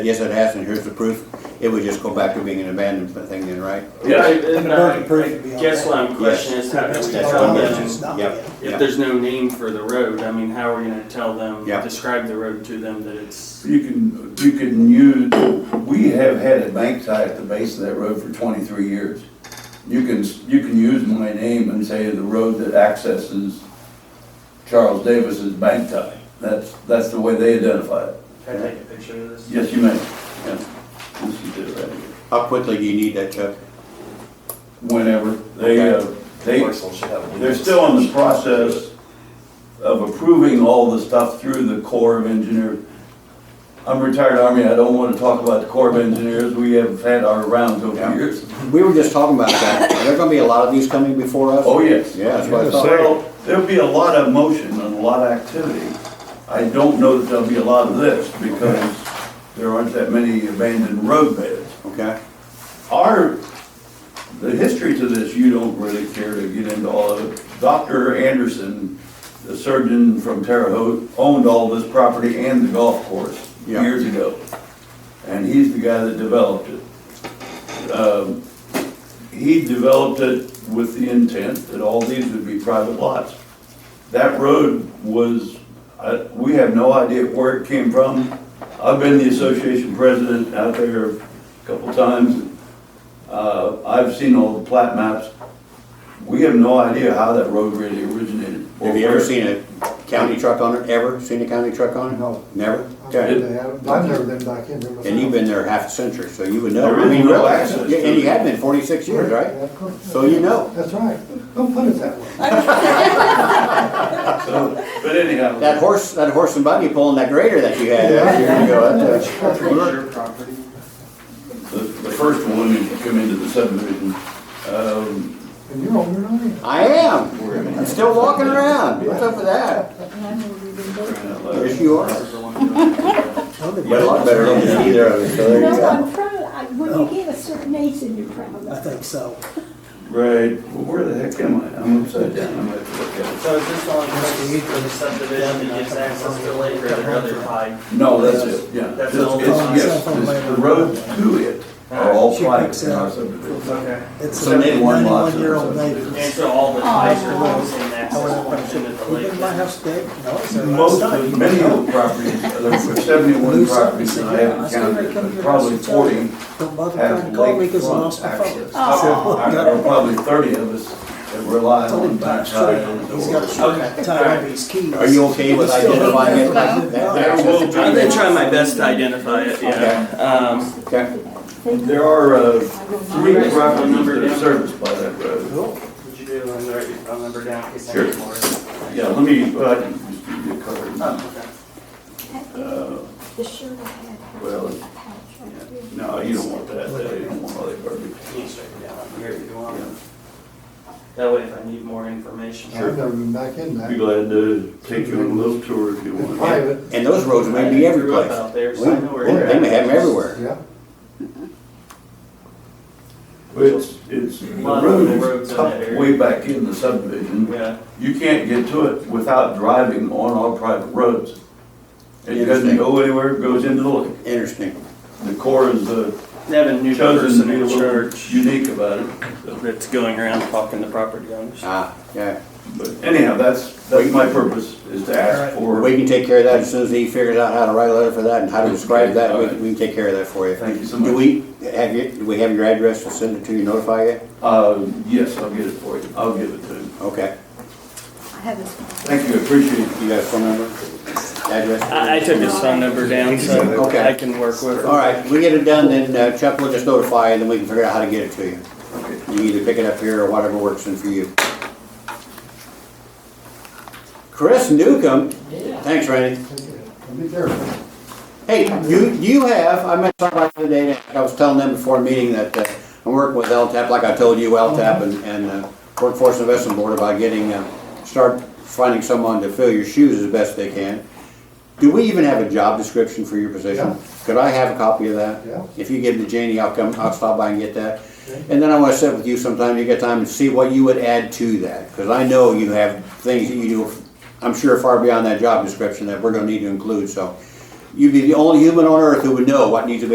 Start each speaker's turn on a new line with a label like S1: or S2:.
S1: Yes, it has, and here's the proof. It would just go back to being an abandoned thing then, right?
S2: Yeah.
S3: Right, and
S2: And
S3: I-
S2: burden proof would be
S3: I
S2: on
S3: Guess
S2: that.
S3: what I'm questioning is how do we
S1: That's
S3: tell
S1: what I'm
S3: them,
S1: questioning. Yep.
S3: if
S1: Yeah.
S3: there's no name for the road, I mean, how are we gonna tell them,
S1: Yeah.
S3: describe the road to them that it's,
S4: You can, you can use, we have had a bank tie at the base of that road for twenty-three years. You can, you can use my name and say the road that accesses Charles Davis's bank tie. That's, that's the way they identify it.
S3: can I take a picture of this?
S4: Yes, you may. Yeah. Yes, you did right here.
S1: How quickly do you need that, Chuck?
S4: Whenever, they, uh, they, They're still in the process of approving all the stuff through the Corps of Engineers. I'm retired Army, I don't want to talk about the Corps of Engineers, we have had our rounds over the years.
S1: We were just talking about that. Are there gonna be a lot of these coming before us?
S4: Oh, yes.
S1: Yeah, that's what I thought.
S4: Well, there'll be a lot of motion and a lot of activity. I don't know that there'll be a lot of this because there aren't that many abandoned road beds.
S1: Okay,
S4: Our, the history to this, you don't really care to get into all of it. Dr. Anderson, the surgeon from Terre Haute, owned all this property and the golf course
S1: Yeah.
S4: years ago. And he's the guy that developed it. Um, He developed it with the intent that all these would be private lots. That road was, I- we have no idea where it came from. I've been the association president out there a couple times. Uh, I've seen all the plat maps. We have no idea how that road really originated.
S1: have you ever seen a county truck on it, ever? Seen a county truck on it?
S5: No.
S1: Never?
S5: I've
S1: Okay.
S5: never been back in there myself.
S1: And you've been there half a century, so you would know.
S4: There is
S1: I mean,
S4: no
S1: really.
S4: access.
S1: Yeah, And you have been forty-six years,
S5: Yeah,
S1: right?
S5: of course.
S1: So you know.
S5: That's right. Don't put it that way.
S4: So, But anyhow.
S1: That horse, that horse and buggy pulling that grader that you had out here ago, that's, uh,
S3: That's your property.
S4: The, the first one, if you come into the subdivision, um,
S5: And you're older than I am.
S1: I am. I'm still walking around. What's up with that? Yes, you are.
S3: That's the one you're on.
S1: You're a lot better looking than either of us, so there you
S6: No,
S1: go.
S6: I'm proud, I- when you get a certain age, then you're proud of
S7: I
S6: it.
S7: think so.
S4: right, well, where the heck am I? I'm upside down, I'm gonna have to look at
S3: So is this on purpose for the subdivision that gives access to Lake or another pipe?
S4: it. No, that's it, yeah.
S3: That's
S4: It's-
S3: all
S4: it's-
S7: on
S4: yes,
S7: cell phone
S4: it's
S7: later.
S4: The road to it are all
S7: She
S4: private
S7: picks
S4: in
S7: it
S4: our
S7: up.
S4: subdivision.
S3: Okay.
S7: It's
S4: Oh, So
S7: a
S4: they want lots of
S7: ninety-one-year-old
S4: those.
S7: neighbor.
S3: And so all the pipes are all the same
S7: I went
S3: access
S7: up
S3: points
S7: and
S3: into the
S7: said,
S3: lake?
S7: "You been to my house today?" No, it's there last
S4: Most
S7: night.
S4: of, many of the properties, there were seventy-one
S7: Lose something,
S4: properties that I
S7: said, "Yeah,
S4: haven't
S7: said, "Hey,
S4: counted,
S7: come to
S4: but
S7: your
S4: probably
S7: house and tell
S4: forty
S7: me." Don't bother trying
S4: have
S7: to call me because I
S4: lakefront
S7: lost my
S4: access.
S7: phone. Oh.
S4: Uh, There are probably thirty of us that rely
S7: It's only
S4: on
S7: back
S4: that
S7: straight.
S4: side of the
S7: He's
S4: door.
S7: got a short tie on his keys.
S1: Are you okay with identifying it? That- that-
S4: Well,
S3: I'm gonna try my best to identify it, yeah. Um,
S1: Okay.
S4: There are uh, three properties that are serviced by that road.
S3: would you be able to write your phone number down in case I
S4: Sure.
S3: need more?
S7: Oh.
S4: Yeah, let me, well, I can just give you a cover.
S3: Oh, okay.
S4: Uh,
S6: The shirt I had had
S4: Well,
S6: a patch right here.
S4: No, you don't want that, uh, you don't want all that garbage.
S3: You can straight it down up here if you want. That way if I need more information.
S5: I've never been back in
S4: Be
S5: there.
S4: glad to take you on a little tour if you
S5: It's
S4: want.
S5: private,
S1: And those roads may be every
S3: I grew up
S1: place.
S3: out there,
S1: We-
S3: so I know where
S1: we-
S3: you're
S1: They may
S3: at.
S1: have them everywhere.
S5: yeah.
S4: It's, it's, the
S3: lot of the
S4: road is
S3: roads in that
S4: tucked
S3: area.
S4: way back in the subdivision.
S3: Yeah,
S4: You can't get to it without driving on our private roads. It doesn't
S1: Interesting.
S4: go anywhere, it goes into the lake.
S1: Interesting.
S4: The Corps is uh,
S3: they have a new
S4: chosen to
S3: person
S4: be a
S3: in
S4: little
S3: charge
S4: unique about it. so.
S3: that's going around talking to property owners.
S1: Ah, yeah.
S4: But anyhow, that's, that's my purpose, is to ask for.
S1: We can take care of that as soon as he figures out how to write a letter for that and how to describe that. We we can take care of that for you.
S4: Thank you so
S1: Do
S4: much.
S1: we, have you, do we have your address to send it to you, notify you?
S4: Uh, yes, I'll get it for you. I'll give it to him.
S1: Okay.
S6: I have this.
S4: Thank you, appreciate it.
S1: You got a phone number? Address?
S3: I, I took his phone number down, so
S1: Okay.
S3: I can work with
S1: All
S3: it.
S1: right, we get it done, then uh, Chuck will just notify you, and then we can figure out how to get it to you. You can either pick it up here or whatever works in for you. Chris Newcomb, thanks Randy.
S5: Take care. Be careful.
S1: Hey, you, you have, I met somebody the other day, and I was telling them before a meeting that uh, I'm working with LTAP, like I told you, LTAP and, and uh, Workforce Investment Board about getting, uh, start finding someone to fill your shoes as best they can. Do we even have a job description for your
S5: Yeah.
S1: position? Could I have a copy of that?
S5: Yeah.
S1: If you give it to Janie, I'll come, I'll stop by and get that. And then I wanna sit with you sometime, you get time, and see what you would add to that, cause I know you have things that you do, I'm sure far beyond that job description that we're gonna need to include, so. you'd be the only human on earth who would know what needs to be